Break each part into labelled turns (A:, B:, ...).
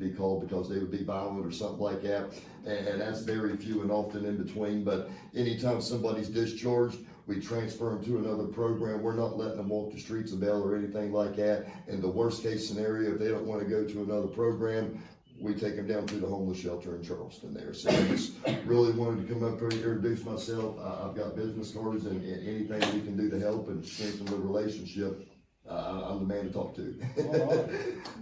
A: be called because they would be violent or something like that. And, and that's very few and often in between, but anytime somebody's discharged, we transfer them to another program. We're not letting them walk the streets of Bell or anything like that. In the worst case scenario, if they don't wanna go to another program, we take them down to the homeless shelter in Charleston there. So I just really wanted to come up here and introduce myself. I, I've got business cards and, and anything we can do to help and strengthen the relationship, uh, I- I'm the man to talk to.
B: All right.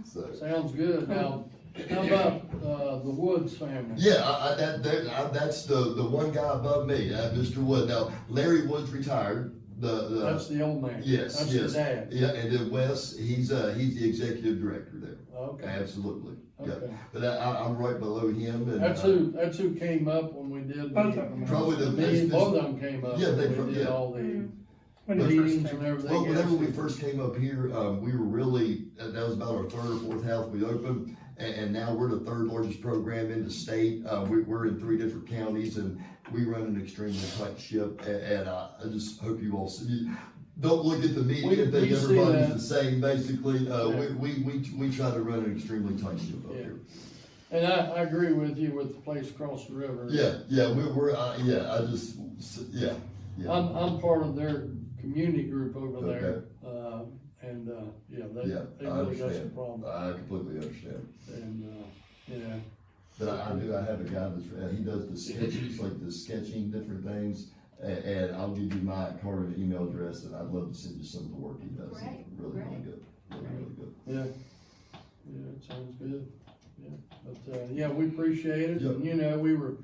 A: So.
B: Sounds good. Now, how about, uh, the Woods family?
A: Yeah, I, I, that, that, I, that's the, the one guy above me, uh, Mr. Wood. Now, Larry Wood's retired. The, the,
B: That's the old man.
A: Yes,
B: That's the
A: yes.
B: dad.
A: yeah, and then Wes, he's, uh, he's the executive director there.
B: Okay,
A: Absolutely. Yeah.
B: okay.
A: But I, I, I'm right below him and.
B: That's
A: uh,
B: who, that's who came up when we did.
C: Both of them.
A: Probably the-
B: Me,
A: it's-
B: both of them came up.
A: Yeah, they
B: when
A: pro-
B: We did
A: yeah.
B: all the
C: Mm-hmm. When it first
B: meetings
C: came.
B: and everything.
A: Well, whenever
B: else.
A: we first came up here, um, we were really, that that was about our third or fourth house we opened. And, and now we're the third largest program in the state. Uh, we, we're in three different counties and we run an extremely tight ship. And, and I, I just hope you all see, you don't look at the
B: We-
A: media and think
B: we see
A: everybody's
B: that.
A: the same, basically. Uh, we,
B: Yeah.
A: we, we, we try to run an extremely tight ship up
B: Yeah.
A: here.
B: And I, I agree with you with the place across the river.
A: Yeah, yeah, we, we're, uh, yeah, I just, yeah, yeah.
B: I'm, I'm part of their community group over
A: Okay.
B: there, uh, and, uh, yeah, they,
A: Yeah,
B: they
A: I
B: really got some
A: understand.
B: problems,
A: I completely understand.
B: and, uh, yeah.
A: But I, I do, I have a guy that's, uh, he does the sketches, like the sketching, different things, and, and I'll give you my card and email address, and I'd love to send you some of the work he does. It's
D: Great,
A: Really, really
D: great.
A: good, really, really good.
B: Yeah, yeah, it sounds good, yeah, but, uh, yeah, we appreciate it, and, you know, we were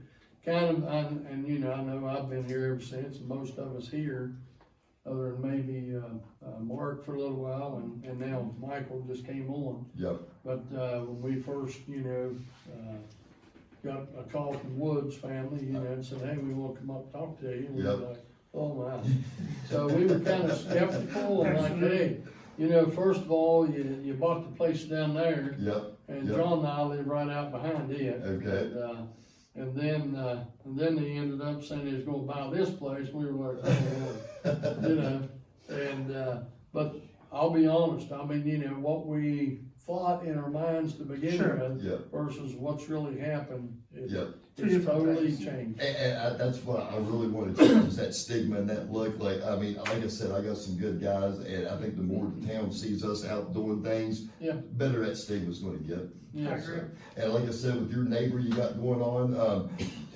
B: kind of, and, and, you know, I know I've been here ever since, and most of us here, other than maybe, uh, uh, Mark for a little while, and, and now Michael just came on.
A: Yep.
B: But, uh, when we first, you know, uh, got a call from Woods family, you know, and said, hey, we wanna come up and talk to you, and we were
A: Yep.
B: like, oh my. So we were kind of skeptical and like, hey, you know, first of all, you, you bought the place down there
A: Yep,
B: and
A: Yeah.
B: John and I live right out behind it.
A: Okay.
B: And, uh, And then, uh, and then they ended up saying they was gonna buy this place. We were like, oh, Lord, you know, and, uh, but I'll be honest, I mean, you know, what we thought in our minds to begin
C: Sure.
B: with
A: yep,
B: versus what's really happened. it-
A: yep.
C: Two
B: It's
C: different
B: totally
C: things.
B: changed.
A: And, and I, that's what I really want to change, is that stigma and that look, like, I mean, like I said, I got some good guys, and I think the more the town sees us out doing things,
B: Yeah.
A: better that stigma's gonna get.
B: Yes.
C: agree.
A: And like I said, with your neighbor you got going on, um,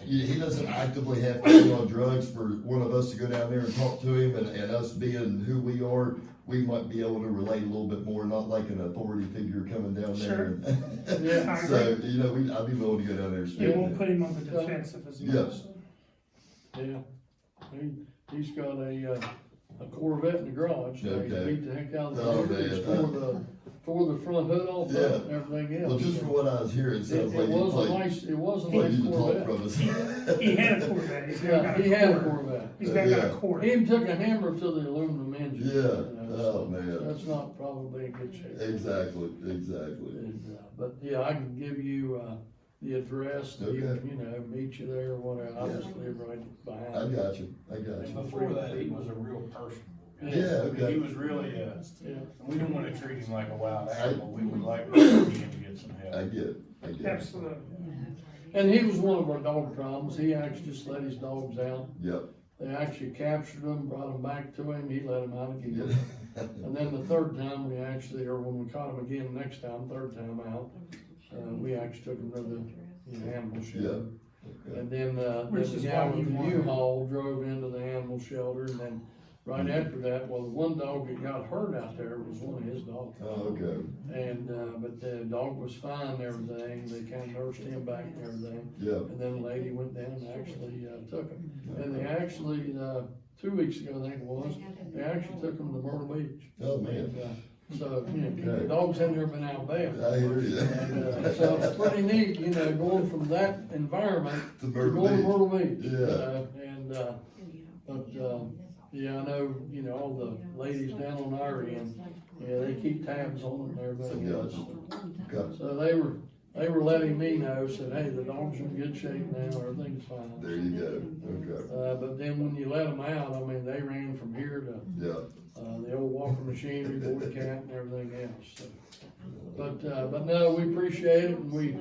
A: he he doesn't actively have to be on drugs for one of us to go down there and talk to him and, and us being who we are, we might be able to relate a little bit more, not like an authority figure coming down there. and-
B: Yeah.
C: I
A: So,
C: agree.
A: you know, we, I'd be willing to go down there and
C: It won't
A: speak.
C: put him on the defensive as
A: Yeah.
C: much.
B: Yeah, he, he's got a, uh, a Corvette in the garage, so he
A: Okay.
B: beat the heck out of
A: Oh,
B: it,
A: man.
B: He's tore the, tore the front hood off of it and everything
A: Well,
B: else.
A: just from what I was hearing, it
B: It,
A: sounds
B: it
A: like you
B: was a
A: played,
B: nice, it was a
A: played you
B: nice
A: the talk
B: Corvette.
A: from us.
C: He had a Corvette, he's now
B: Yeah,
C: got a
B: he had a
C: Corvette.
B: Corvette.
C: He's now got a
A: Yeah.
B: He
C: Corvette.
B: even took a hammer to the aluminum engine.
A: Yeah,
B: you know,
A: oh,
B: so
A: man.
B: That's not probably in good shape.
A: Exactly, exactly.
B: And, uh, But, yeah, I can give you, uh, the address, and you,
A: Okay.
B: you know, meet you there or whatever, I
A: Yeah.
B: just live right
A: I
B: behind.
A: got you, I got
E: And
A: you.
E: before that, he was a real person.
A: Yeah,
E: I mean,
A: okay.
E: He was really, uh,
B: Oh, Yeah.
E: we don't wanna treat him like a wild animal, we would like to see him get some
A: I
E: help.
A: get it, I get it.
C: Absolutely.
B: And he was one of our dog problems, he actually just let his dogs out.
A: Yep.
B: They actually captured him, brought him back to him, he let him out again.
A: Yeah.
B: And then the third time, we actually, or when we caught him again next time, third time out, uh, we actually took him to the, you know, animal shelter.
A: Okay.
B: And then, uh,
C: Which
B: then the
C: is
B: guy
C: why
B: with
C: you
B: the
C: want-
B: U-Haul drove into the animal shelter, and then right after that, well, the one dog that got hurt out there was one of his dogs.
A: Oh, okay,
B: And, uh, but the dog was fine and everything, they kind of nursed him back and everything.
A: yeah.
B: And then a lady went down and actually uh, took him. And they actually, uh, two weeks ago, I think it was, they actually took him to Myrtle Beach.
A: Oh, man.
B: And, uh, So, you know, the dogs hadn't ever been out
A: I
B: bad.
A: hear you.
B: And, uh, So it's pretty neat, you know, going from that environment
A: The
B: to going to
A: bird
B: Myrtle Beach.
A: Yeah.
B: you know, And, uh, but, um, yeah, I know, you know, all the ladies down on our end, yeah, they keep tabs on them and everything else.
A: Okay.
B: So they were, they were letting me know, said, hey, the dog's in good shape now, everything's fine.
A: There you go, okay,
B: Uh, but then when you let them out, I mean, they ran from here to,
A: yeah.
B: uh, the old walking machinery, boy cat and everything else, so. But, uh, but no, we appreciate it and we,